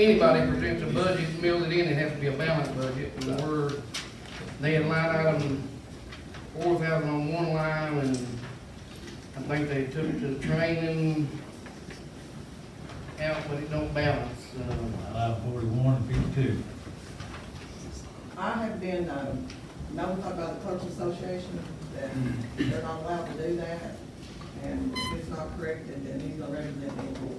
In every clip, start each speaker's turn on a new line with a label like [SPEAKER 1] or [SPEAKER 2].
[SPEAKER 1] anybody presents a budget, mill it in, it has to be a balanced budget, and we're, they had line item four thousand on one line, and I think they took it to the training out, but it don't balance, uh,
[SPEAKER 2] Line item forty-one and fifty-two.
[SPEAKER 3] I have been um, notified by the clerks association that they're not allowed to do that, and if it's not corrected, then he's gonna represent me in court.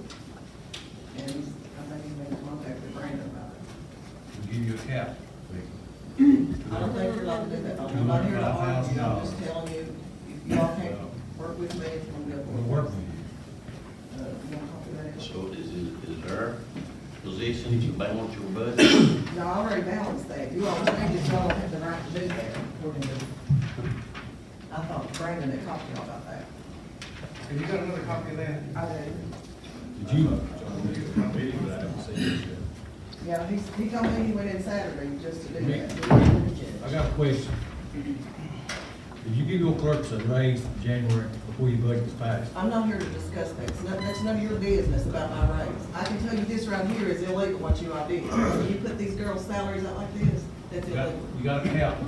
[SPEAKER 3] And he's- I think he's made contact with Brandon about it.
[SPEAKER 2] We'll give you a cap.
[SPEAKER 3] I don't think you're allowed to do that, I'm not here to argue, I'm just telling you, if you all can't work with me, it's gonna be a
[SPEAKER 2] We'll
[SPEAKER 3] board.
[SPEAKER 2] work with you.
[SPEAKER 3] Uh, you want to copy that?
[SPEAKER 4] So is, it- is there position that you balance your budget?
[SPEAKER 3] No, I already balanced that, you all think that y'all have the right to do that, according to, I thought Brandon had talked to y'all about that.
[SPEAKER 1] have you got another copy of that?
[SPEAKER 3] I did.
[SPEAKER 2] Did you?
[SPEAKER 3] Yeah, he's, he told me he went in Saturday just to do
[SPEAKER 2] Nick. I
[SPEAKER 3] that.
[SPEAKER 2] got a question. Did you give your clerks a raise in January before your budget was passed?
[SPEAKER 3] I'm not here to discuss that, it's none, that's none of your business about my raise. I can tell you this right here is illegal what you all did. When you put these girls' salaries out like this, that's
[SPEAKER 2] You got,
[SPEAKER 3] illegal.
[SPEAKER 2] you got a cap, two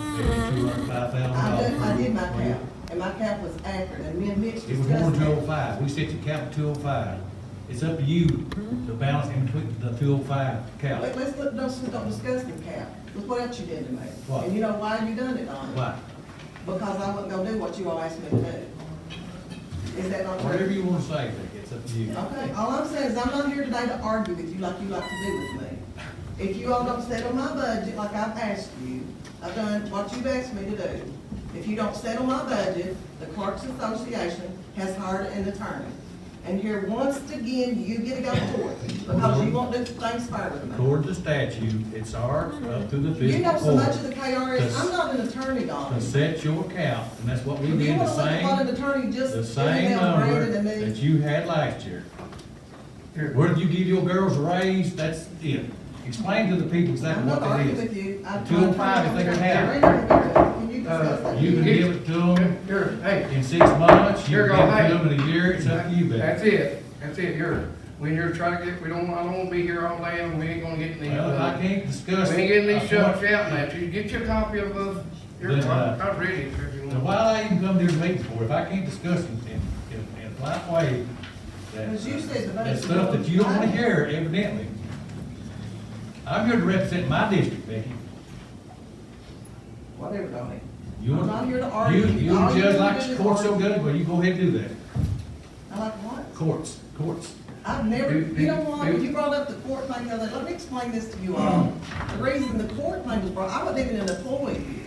[SPEAKER 2] hundred five
[SPEAKER 3] I
[SPEAKER 2] thousand
[SPEAKER 3] did,
[SPEAKER 2] dollars.
[SPEAKER 3] I did my cap, and my cap was accurate, and me and Mitch
[SPEAKER 2] It was more
[SPEAKER 3] discussed
[SPEAKER 2] than two
[SPEAKER 3] it.
[SPEAKER 2] oh five, we set the cap at two oh five. It's up to you to balance in between the two oh five cap.
[SPEAKER 3] Let, let's, look- let's, just don't discuss the cap, look what else you did to me.
[SPEAKER 2] What?
[SPEAKER 3] And you know why you done it, Donnie?
[SPEAKER 2] Why?
[SPEAKER 3] Because I wasn't gonna do what you all asked me to do. Is that not true?
[SPEAKER 2] Whatever you wanna say, Vicky, it's up to you.
[SPEAKER 3] Okay, all I'm saying is I'm not here today to argue with you like you like to do with me. If you all don't settle my budget like I've asked you, I've done what you've asked me to do. If you don't settle my budget, the Clerks Association has hired an attorney. And here, once again, you get to go to court because you won't do things fair with me.
[SPEAKER 2] According to statute, it's our, up to the fiscal
[SPEAKER 3] You know so much
[SPEAKER 2] court
[SPEAKER 3] of the KRS, I'm not an attorney, Donnie.
[SPEAKER 2] to set your cap, and that's what we
[SPEAKER 3] If you
[SPEAKER 2] did,
[SPEAKER 3] want
[SPEAKER 2] the
[SPEAKER 3] to look at what
[SPEAKER 2] same,
[SPEAKER 3] an attorney just
[SPEAKER 2] the
[SPEAKER 3] did,
[SPEAKER 2] same
[SPEAKER 3] they're
[SPEAKER 2] number
[SPEAKER 3] greater than me.
[SPEAKER 2] that you had last year.
[SPEAKER 1] Here.
[SPEAKER 2] Whether you give your girls a raise, that's it. Explain to the people
[SPEAKER 3] I'm
[SPEAKER 2] exactly what
[SPEAKER 3] not
[SPEAKER 2] that
[SPEAKER 3] arguing
[SPEAKER 2] is.
[SPEAKER 3] with you. I-
[SPEAKER 2] 205 if they can have it.
[SPEAKER 3] Can you discuss
[SPEAKER 1] Uh,
[SPEAKER 3] that?
[SPEAKER 2] You can give it to them
[SPEAKER 1] Here, hey,
[SPEAKER 2] in six months, you
[SPEAKER 1] You're
[SPEAKER 2] can
[SPEAKER 1] gonna
[SPEAKER 2] give it to them in a year, it's up to you,
[SPEAKER 1] that's
[SPEAKER 2] baby.
[SPEAKER 1] it, that's it, you're, we're here trying to get, we don't, I don't wanna be here all day, and we ain't gonna get any.
[SPEAKER 2] Well, if I can't discuss.
[SPEAKER 1] uh, We ain't getting these
[SPEAKER 2] I
[SPEAKER 1] shucks
[SPEAKER 2] want-
[SPEAKER 1] out now, you get your copy of, uh, your,
[SPEAKER 2] Then, uh,
[SPEAKER 1] I've read it if you
[SPEAKER 2] Now,
[SPEAKER 1] want.
[SPEAKER 2] why I even come to these meetings for, if I can't discuss it in, in, in a polite way, that, uh,
[SPEAKER 3] Because you said the
[SPEAKER 2] that
[SPEAKER 3] budget-
[SPEAKER 2] stuff that you don't wanna hear evidently. I'm here to represent my district, Becky.
[SPEAKER 3] Whatever, Donnie.
[SPEAKER 2] You
[SPEAKER 3] I'm
[SPEAKER 2] want-
[SPEAKER 3] not here to argue.
[SPEAKER 2] You, you
[SPEAKER 3] All you
[SPEAKER 2] judge
[SPEAKER 3] do
[SPEAKER 2] like
[SPEAKER 3] is
[SPEAKER 2] the courts so
[SPEAKER 3] argue.
[SPEAKER 2] good, well, you go ahead and do that.
[SPEAKER 3] I like what?
[SPEAKER 2] Courts, courts.
[SPEAKER 3] I've never,
[SPEAKER 1] Do- do-
[SPEAKER 3] you know what, when
[SPEAKER 1] do-
[SPEAKER 3] you brought up the court thing, the other let me explain this to you
[SPEAKER 2] Mm.
[SPEAKER 3] all. The reason the court thing was brought, I wasn't even an employee here.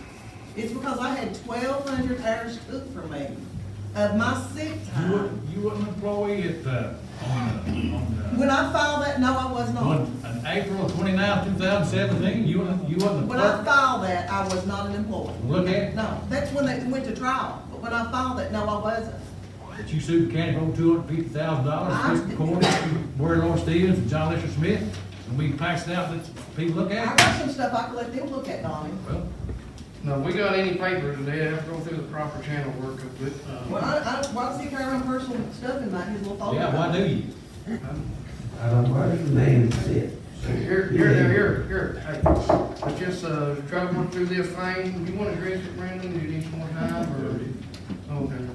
[SPEAKER 3] It's because I had twelve hundred hours took from me of my sick
[SPEAKER 2] You were,
[SPEAKER 3] time.
[SPEAKER 2] you were an employee at, uh, on, uh, on,
[SPEAKER 3] When I filed that, no, I was
[SPEAKER 2] uh,
[SPEAKER 3] not.
[SPEAKER 2] on, on April twenty-ninth, two thousand seventeen, you were, you wasn't a
[SPEAKER 3] When I
[SPEAKER 2] clerk.
[SPEAKER 3] filed that, I was not an employee.
[SPEAKER 2] Look at, it.
[SPEAKER 3] No, that's when they went to trial, but when I filed it, no, I wasn't.
[SPEAKER 2] that you sued the county for two hundred fifty thousand
[SPEAKER 3] I-
[SPEAKER 2] dollars, fiscal court, Roy Lawrence Stevens and John Lester Smith, and we passed it out, let people look
[SPEAKER 3] I
[SPEAKER 2] at it.
[SPEAKER 3] got some stuff I could let them look at, Donnie.
[SPEAKER 2] Well,
[SPEAKER 1] No, we got any papers today, I have to go through the proper channel work of it.
[SPEAKER 3] Well,
[SPEAKER 1] uh,
[SPEAKER 3] I, I, why does he carry around personal stuff in like his little folder?
[SPEAKER 2] yeah, why do you?
[SPEAKER 5] I don't know, the man said.
[SPEAKER 1] Here, here, here, here, here, hey, but just, uh, try to work through this thing, you wanna address it, Brandon, do you need some more time, or? Okay,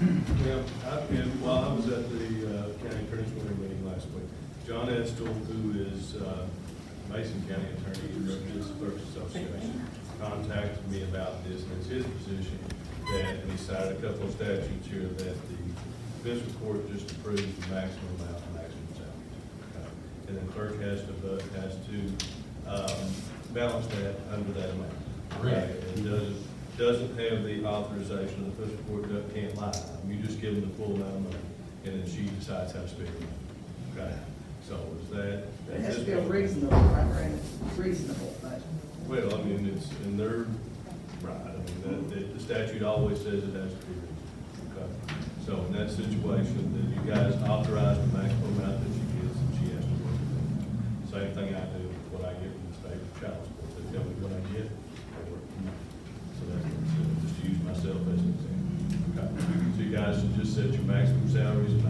[SPEAKER 6] Yeah, I've been, well, I was at the uh, county attorney's winter meeting last week. John Estel, who is uh, Mason County Attorney, who represents the Clerks Association, contacted me about this, and it's his position that, and he cited a couple of statutes here, that the fiscal court just approves the maximum amount, of maximum salary. Uh, And the clerk has to, vote- has to um, balance that under that amount.
[SPEAKER 2] Correct.
[SPEAKER 6] It doesn't, doesn't have the authorization of the fiscal court, that can't lie. You just give them the full amount of money, and then she decides how to spend it. Okay, so is that?
[SPEAKER 3] It has to be a reasonable, right, Brandon? Reasonable, but.
[SPEAKER 6] Well, I mean, it's, and they're, right, I mean, that, that, the statute always says it has to be reasonable. Okay, so in that situation, then you guys authorize the maximum amount that she gives, and she has to work with it. Same thing I do with what I get from the state of child support, they tell me what I get, I work. So that's, what I'm saying, just to use myself as an example. Okay, so you guys should just is set your maximum salaries and